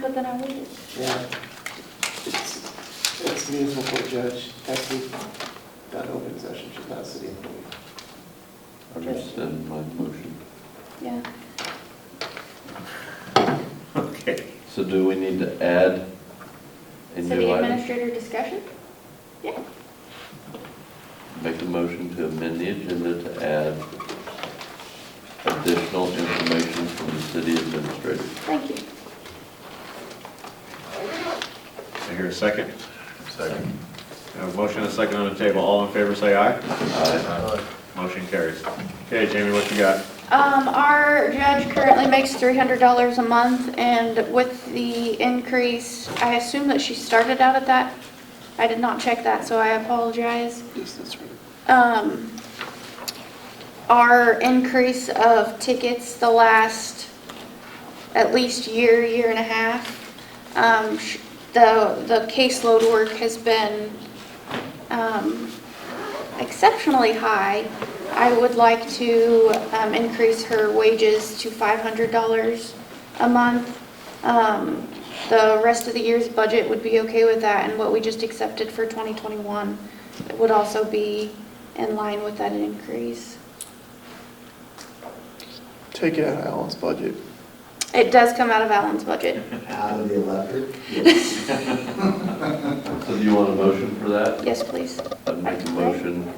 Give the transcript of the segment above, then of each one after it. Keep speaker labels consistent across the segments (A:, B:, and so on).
A: But then I waited.
B: Yeah. It's, it's meaningful for a judge, actually, not open session, should not city employee.
C: I rescind my motion.
A: Yeah.
D: Okay.
C: So do we need to add a
A: City
C: new item?
A: administrator discussion? Yeah.
C: Make a motion to amend the agenda to add additional information from the city administrator.
A: Thank you.
D: I hear a second.
C: Second.
D: I have a motion and a second on the table. All in favor, say aye.
C: Aye.
D: Motion carries. Okay, Jamie, what you got?
A: Um, our judge currently makes three hundred dollars a month, and with the increase, I assume that she started out at that. I did not check that, so I apologize.
B: Yes, that's right.
A: Um, our increase of tickets the last at least year, year and a half, um, sh- the, the caseload work has been, um, exceptionally high. I would like to, um, increase her wages to five hundred dollars a month. Um, the rest of the year's budget would be okay with that, and what we just accepted for twenty twenty-one would also be in line with that increase.
B: Take it out of Alan's budget.
A: It does come out of Alan's budget.
E: Out of the electric?
C: So do you want a motion for that?
A: Yes, please.
C: I'd make a motion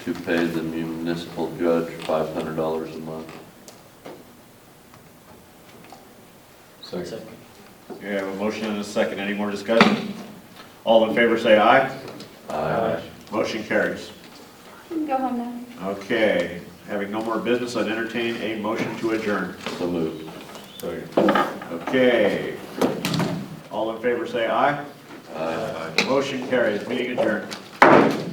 C: to pay the municipal judge $500 a month.
E: Second.
D: We have a motion and a second. Any more discussion? All in favor, say aye.
C: Aye.
D: Motion carries.
A: You can go home now.
D: Okay, having no more business, I'd entertain a motion to adjourn.
C: So moved.
D: Okay. All in favor, say aye.
C: Aye.
D: Motion carries. Meeting adjourned.